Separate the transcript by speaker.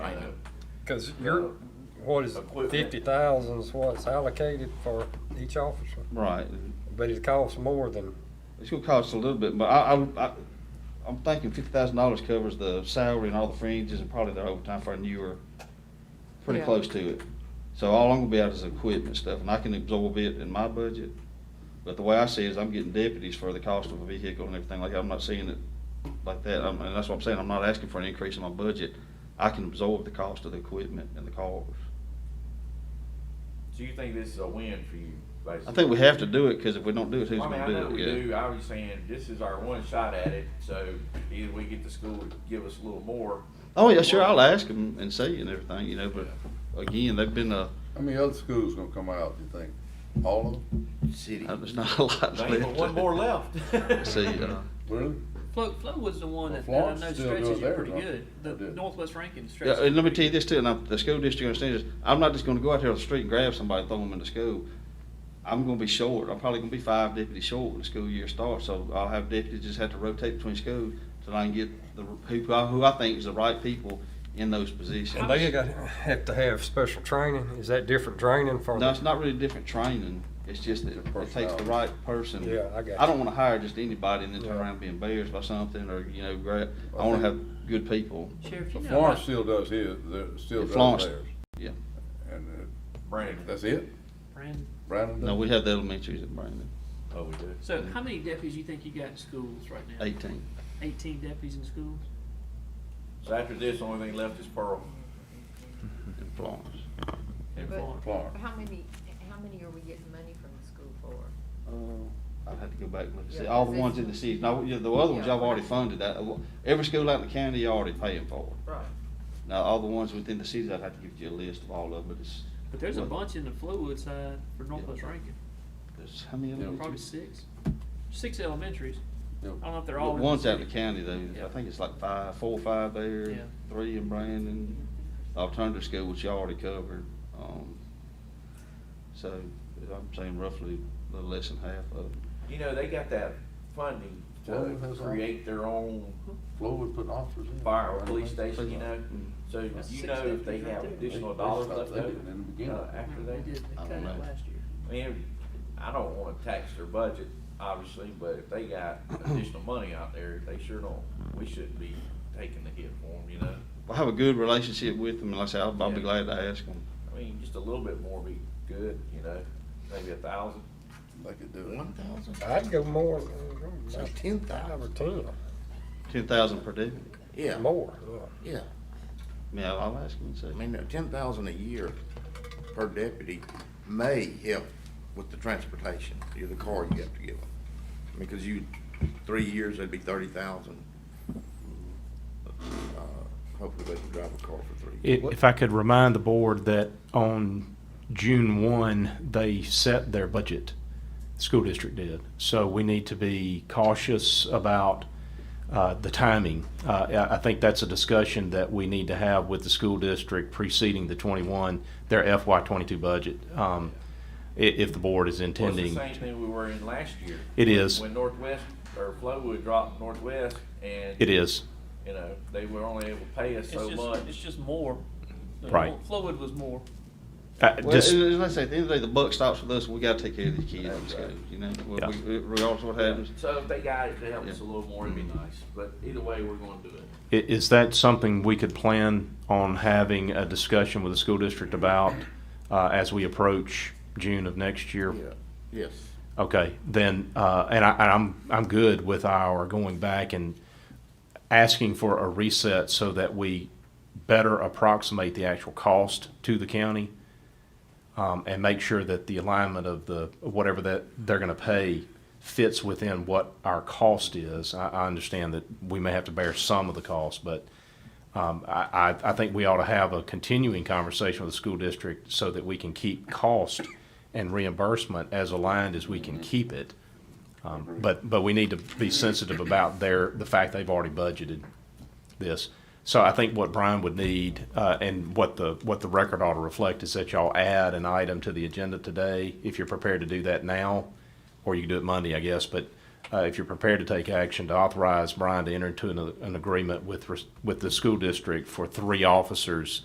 Speaker 1: Because you're, what is it,
Speaker 2: Equipment.
Speaker 1: fifty thousand is what's allocated for each officer,
Speaker 3: Right.
Speaker 1: but it costs more than,
Speaker 3: It's gonna cost a little bit, but I, I, I, I'm thinking fifty thousand dollars covers the salary and all the fringes and probably their overtime for a newer, pretty
Speaker 4: Yeah.
Speaker 3: close to it. So all I'm gonna be out is equipment stuff, and I can absorb it in my budget. But the way I see it is I'm getting deputies for the cost of a vehicle and everything like that. I'm not seeing it like that. I'm, and that's what I'm saying. I'm not asking for an increase in my budget. I can absorb the cost of the equipment and the cars.
Speaker 2: So you think this is a win for you, basically?
Speaker 3: I think we have to do it, because if we don't do it, who's
Speaker 2: I mean,
Speaker 3: gonna
Speaker 2: I
Speaker 3: do it?
Speaker 2: know we
Speaker 3: Yeah.
Speaker 2: do, I was saying, this is our one shot at it, so either we get the school to give us a little more.
Speaker 3: Oh yeah, sure. I'll ask them and see and everything, you know. But again, they've been uh, a
Speaker 5: How many other schools gonna come out, you think? All of them?
Speaker 2: City.
Speaker 3: there's not a lot
Speaker 2: Ain't but
Speaker 3: left.
Speaker 2: one more left.
Speaker 3: See, uh,
Speaker 5: Really?
Speaker 6: Flo, Flo was the one
Speaker 5: Well,
Speaker 6: that, that I
Speaker 5: Florence
Speaker 6: know
Speaker 5: still
Speaker 6: stretches
Speaker 5: does
Speaker 6: you
Speaker 5: theirs,
Speaker 6: pretty
Speaker 5: don't
Speaker 6: good.
Speaker 5: they?
Speaker 6: The
Speaker 5: They do.
Speaker 6: Northwest Rankin
Speaker 3: yeah,
Speaker 6: stretches.
Speaker 3: and let me tell you
Speaker 6: pretty
Speaker 3: this too. And I'm, the school district understands this. I'm not just going to go out there on the street and grab somebody and throw them in the school. I'm going to be short. I'm probably going to be five deputies short when the school year starts. So I'll have deputies just have to rotate between schools till I can get the who, I- who I think is the right people in those positions.
Speaker 1: and they got, have to have special training, is that different training for?
Speaker 3: No,
Speaker 1: the-
Speaker 3: it's not really different training. It's just that it takes the right person.
Speaker 1: Yeah, I got
Speaker 3: I don't wanna hire just anybody and then turn
Speaker 1: Yeah.
Speaker 3: around and be embarrassed by something or, you know, gra- I
Speaker 5: I
Speaker 3: wanna
Speaker 5: think-
Speaker 3: have good people.
Speaker 6: Sheriff, you
Speaker 5: But
Speaker 6: know.
Speaker 5: Florence
Speaker 6: about-
Speaker 5: still does his, they're still
Speaker 3: Florence,
Speaker 5: does theirs.
Speaker 3: yeah.
Speaker 5: And uh,
Speaker 2: Brandon.
Speaker 5: that's it?
Speaker 6: Brandon.
Speaker 5: Brandon does?
Speaker 3: No, we have the elementaries at Brandon,
Speaker 2: Oh, we do.
Speaker 6: So how many deputies you think you got in schools right now?
Speaker 3: eighteen.
Speaker 6: Eighteen deputies in schools?
Speaker 2: So after this, the only thing left is Pearl
Speaker 3: in Florence.
Speaker 6: in
Speaker 4: But-
Speaker 6: Florence?
Speaker 5: Florence.
Speaker 4: How many, how many are we getting money from the school for?
Speaker 3: Uh, I'd have to go back and look and see,
Speaker 4: Yeah,
Speaker 3: all the
Speaker 4: because
Speaker 3: ones
Speaker 4: it's-
Speaker 3: in the city, no, yeah, the other ones
Speaker 4: Yeah.
Speaker 3: y'all already funded, that, every school out in the county, you're already paying for.
Speaker 4: Right.
Speaker 3: Now, all the ones within the cities, I'd have to give you a list of all of them, but it's,
Speaker 6: But there's a
Speaker 3: What?
Speaker 6: bunch in the Flowood side for Northwest Rankin,
Speaker 3: there's, how many
Speaker 5: Yeah.
Speaker 6: probably
Speaker 3: elementaries?
Speaker 6: six, six elementaries. I
Speaker 5: Yeah.
Speaker 6: don't know if they're all. in the
Speaker 3: One's out in
Speaker 6: city.
Speaker 3: the county though,
Speaker 6: Yeah.
Speaker 3: I think it's like five, four or five there,
Speaker 6: Yeah.
Speaker 3: three in Brandon, alternative school, which you already covered, um. So, I'm saying roughly a little less than half of them.
Speaker 2: You know, they got that funding
Speaker 5: Well,
Speaker 2: to
Speaker 5: that's all.
Speaker 2: create their own
Speaker 5: Flo would put officers in.
Speaker 2: fire or police station, you know?
Speaker 5: Mm-hmm.
Speaker 3: Mm.
Speaker 2: So
Speaker 6: That's
Speaker 2: you
Speaker 6: six
Speaker 2: know if they
Speaker 6: deputies right
Speaker 2: have
Speaker 6: there.
Speaker 2: additional
Speaker 5: They- they
Speaker 2: dollars
Speaker 5: stopped
Speaker 2: left
Speaker 5: that
Speaker 2: over,
Speaker 5: in the beginning.
Speaker 2: uh, after
Speaker 6: They
Speaker 2: that.
Speaker 6: did, they
Speaker 3: I
Speaker 6: cut
Speaker 3: don't
Speaker 6: it
Speaker 3: know.
Speaker 6: last year.
Speaker 2: I mean, I don't wanna tax their budget, obviously, but if they got additional money out there, they sure don't, we shouldn't be taking the hit for them, you know?
Speaker 3: I have a good relationship with them, and like I said, I'll, I'll be
Speaker 2: Yeah.
Speaker 3: glad to ask them.
Speaker 2: I mean, just a little bit more be good, you know, maybe a thousand.
Speaker 5: They could do it.
Speaker 2: thousand?
Speaker 1: I'd go more. ten thousand. Five or
Speaker 3: Ten thousand per deputy,
Speaker 7: Yeah,
Speaker 1: ten, more, yeah.
Speaker 7: yeah.
Speaker 3: I mean, I'll, I'll ask them and see.
Speaker 7: I mean, ten thousand a year per deputy may help with the transportation, you know, the car you have to give them. Because you, three years, that'd be thirty thousand. Uh, Hopefully they can drive a car for three years.
Speaker 8: I- If I could remind the board that on June one, they set their budget, the school district did. So we need to be cautious about uh, the timing. Uh, I I think that's a discussion that we need to have with the school district preceding the twenty-one, their FY twenty-two budget, um, i- if the board is
Speaker 2: Well, it's
Speaker 8: intending.
Speaker 2: the same thing we were in last year.
Speaker 8: It is.
Speaker 2: When Northwest, or Flowood dropped Northwest and.
Speaker 8: It is.
Speaker 2: You know, they were only able to pay us
Speaker 6: It's
Speaker 2: so
Speaker 6: just, it's
Speaker 2: much.
Speaker 6: just more. The
Speaker 8: Right.
Speaker 6: Flowood was more.
Speaker 8: Uh,
Speaker 3: Well,
Speaker 8: just-
Speaker 3: and, and like I say, at the end of the day, the buck stops with us, we gotta take care of these kids in
Speaker 2: That's right.
Speaker 3: school, you know, we-
Speaker 8: Yeah.
Speaker 3: we- regardless of what happens.
Speaker 2: So if they got it to help us a little more, it'd be
Speaker 8: Mm-hmm.
Speaker 2: nice, but either way, we're gonna do it.
Speaker 8: I- Is that something we could plan on having a discussion with the school district about uh, as we approach June of next year?
Speaker 7: Yeah, yes.
Speaker 8: Okay, then, uh, and I, and I'm, I'm good with our going back and asking for a reset so that we better approximate the actual cost to the county. Um, and make sure that the alignment of the, whatever that they're gonna pay fits within what our cost is. I, I understand that we may have to bear some of the cost, but, um, I, I, I think we ought to have a continuing conversation with the school district so that we can keep cost and reimbursement as aligned as we can keep it. Um, but, but we need to be sensitive about their, the fact they've already budgeted this. So I think what Brian would need, uh, and what the, what the record ought to reflect is that y'all add an item to the agenda today, if you're prepared to do that now, or you can do it Monday, I guess, but, uh, if you're prepared to take action to authorize Brian to enter into an, an agreement with, res- with the school district for three officers